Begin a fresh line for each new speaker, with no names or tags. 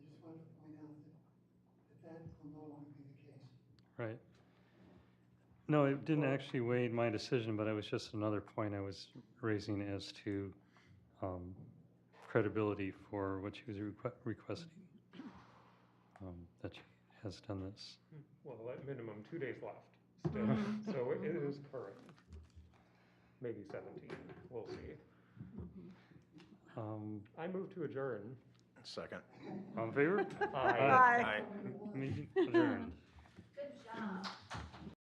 that will no longer be the case.
Right. No, it didn't
Well-
actually weigh in my decision, but it was just another point I was raising as to um, credibility for what she was requ- requesting. um, That she has done this.
Well, at minimum, two days left still, so it is current. Maybe seventeen, we'll see.
Um,
I move to adjourn.
Second.
All in favor?
Aye.
Meeting adjourned.
Good job.